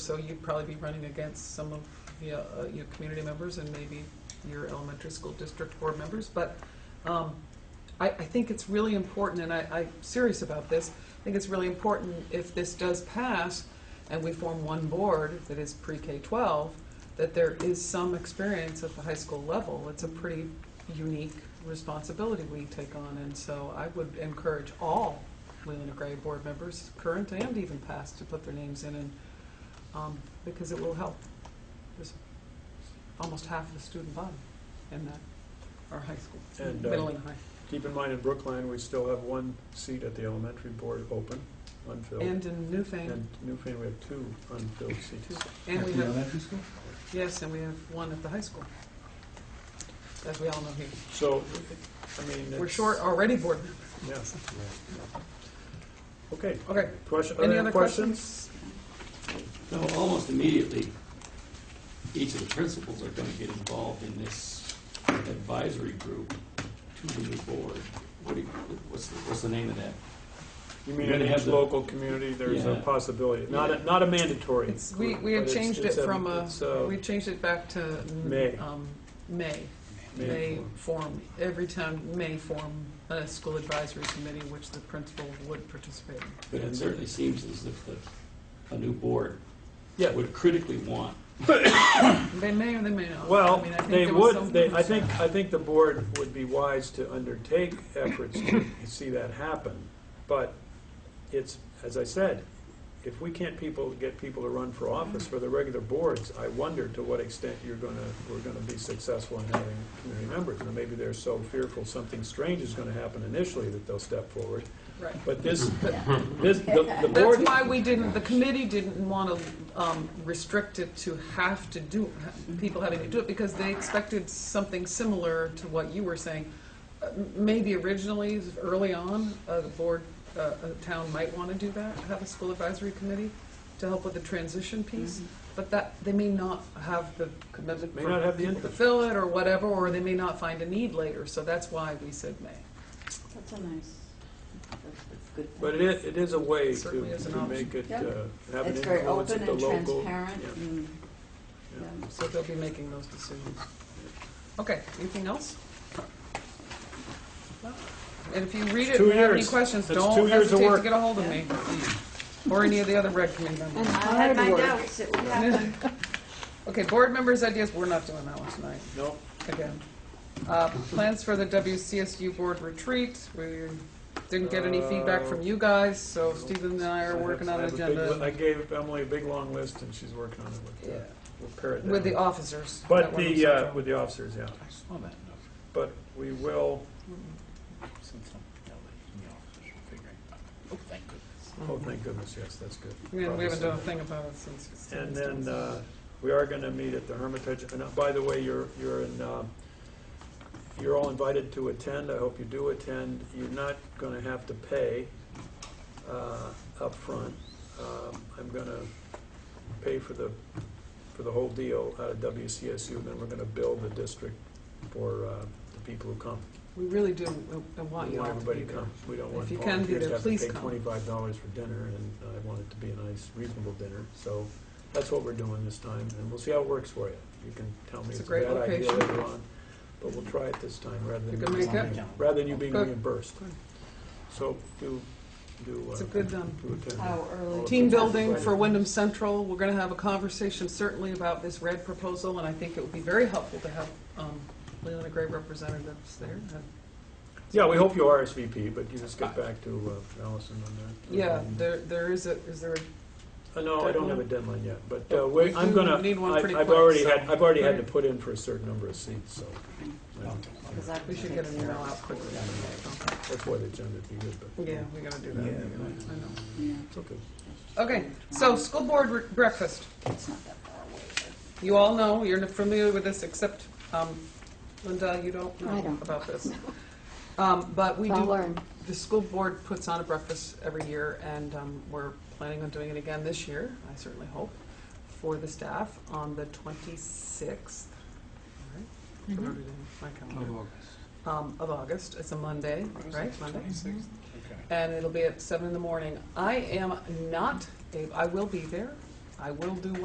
So you'd probably be running against some of the, uh, your community members and maybe your elementary school district board members, but um, I, I think it's really important, and I, I'm serious about this, I think it's really important if this does pass and we form one board that is pre-K-12, that there is some experience at the high school level. It's a pretty unique responsibility we take on, and so I would encourage all Leland and Gray board members, current and even past, to put their names in and um, because it will help. There's almost half the student body in that, our high school, And, uh, middle and high, Keep in mind, in Brookline, we still have one seat at the elementary board open, unfilled. and in Newfane, And Newfane, we have two unfilled seats. and we At the have, elementary school? uh, yes, and we have one at the high school, as we all know here. So, I mean. We're it's- short already, board members. Yeah. Okay, Okay, question, any other other questions? questions? So almost immediately, each of the principals are going to get involved in this advisory group to the new board. What do you, what's, the- what's the name of that? You mean You're in gonna each have the- local community, there's a Yeah. possibility, not, Yeah. a not a mandatory. It's, we, group, we had but it's- changed it it's a- from a, it's uh, a we changed it back to. mm, May. um, May. May May form, every town may form a school advisory committee, which the principal would participate in. But it certainly seems as if the, a new board Yeah, would critically want. They may or they may not. I Well, mean, I think they there was would, some they, I think, concern. I think the board would be wise to undertake efforts to see that happen. But it's, as I said, if we can't people, get people to run for office for the regular boards, I wonder to what extent you're gonna, we're gonna be successful in having community members. And maybe they're so fearful something strange is gonna happen initially that they'll step forward. Right. But this, this, the, the That's board, why we didn't, the committee didn't want to um, restrict it to have to do, people having to do it, because they expected something similar to what you were saying. Uh, m- Maybe originally, early on, a board, uh, a town might want to do that, have a school advisory committee to help with the transition piece, but that, they may not have the commitment Mm-hmm. May for not have the people to interest. fill it or whatever, or they may not find a need later, so that's why we said may. That's a nice, that's, that's good. thing. but it is, it is a way to, Certainly is an to option. make it, uh, Yeah. have an It's very influence open at the and local. transparent yeah, and, yeah. yeah. So they'll be making those decisions. Okay, anything else? And if you read it two and have any years. questions, That's two don't years of hesitate to work. get a hold of me. Or any of the other rec committee members. And I had my doubts it would happen. Okay, board members' ideas, we're not doing that one tonight, No, again. Uh, Plans for the WCSU board retreat, we didn't get any feedback from you guys, so Stephen and I are working on I an have a big li- I agenda gave Emily a big, long list, and she's working on it with, uh, Yeah. we'll pare it with the down. officers. that But we're the, concerned uh, about. with the officers, yeah. I saw that note. But we will, Sent something to Ellie in the office, we're figuring it out. Oh, thank goodness. oh, Mm-hmm. thank goodness, yes, that's good. Yeah, We haven't done a Probably thing about it since. so. And then, uh, we are gonna meet at the Hermitage, and uh, by the way, you're, you're in, uh, you're all invited to attend, I hope you do attend. You're not gonna have to pay, uh, upfront. Um, I'm gonna pay for the, for the whole deal out of WCSU, and then we're gonna bill the district for, uh, the people who come. We really do, uh, uh, want We you all want to be there. everybody to come. We don't want If you can be volunteers there, to have to please pay come. twenty-five dollars for dinner, and uh, I want it to be a nice, reasonable dinner. So that's what we're doing this time, and we'll see how it works for you. You can tell me It's a it's a great bad idea location. later on, but we'll try it this time rather You than. can you make being- it. Rather than you being Good. reimbursed. So do, do. uh, It's a good, um, do attend. How early? Team building for Wyndham Central, we're gonna have a conversation certainly about this red proposal, and I think it would be very helpful to have um, Leland and Gray representatives there. Yeah, we hope you RSVP, but you just get back to uh, Allison on that. Yeah, Um, there, there is a, is there, a- Uh, No, I don't have a deadline yet, but uh, we- We I'm Oh, do gonna, need one I- pretty I've quick, already so- had, I've already had to Right. put in for a certain number of seats, so. uh, Because I we can should take get an care email of out quickly. Okay. That's why the agenda would be good, but. Yeah, we gotta do that. Yeah. I know. it. Yeah, It's okay. Okay, so school board re- breakfast. It's not that far away. You all know, you're familiar with this, except um, Linda, you don't I know don't. about this. Um, But we do. I'll learn. The school board puts on a breakfast every year, and um, we're planning on doing it again this year, I certainly hope, for the staff on the 26th. All right? Wrote it in my calendar. Um, Of August, it's a Monday, right? Monday? Okay. And it'll be at seven in the morning. I am not, Dave, I will be there. I will do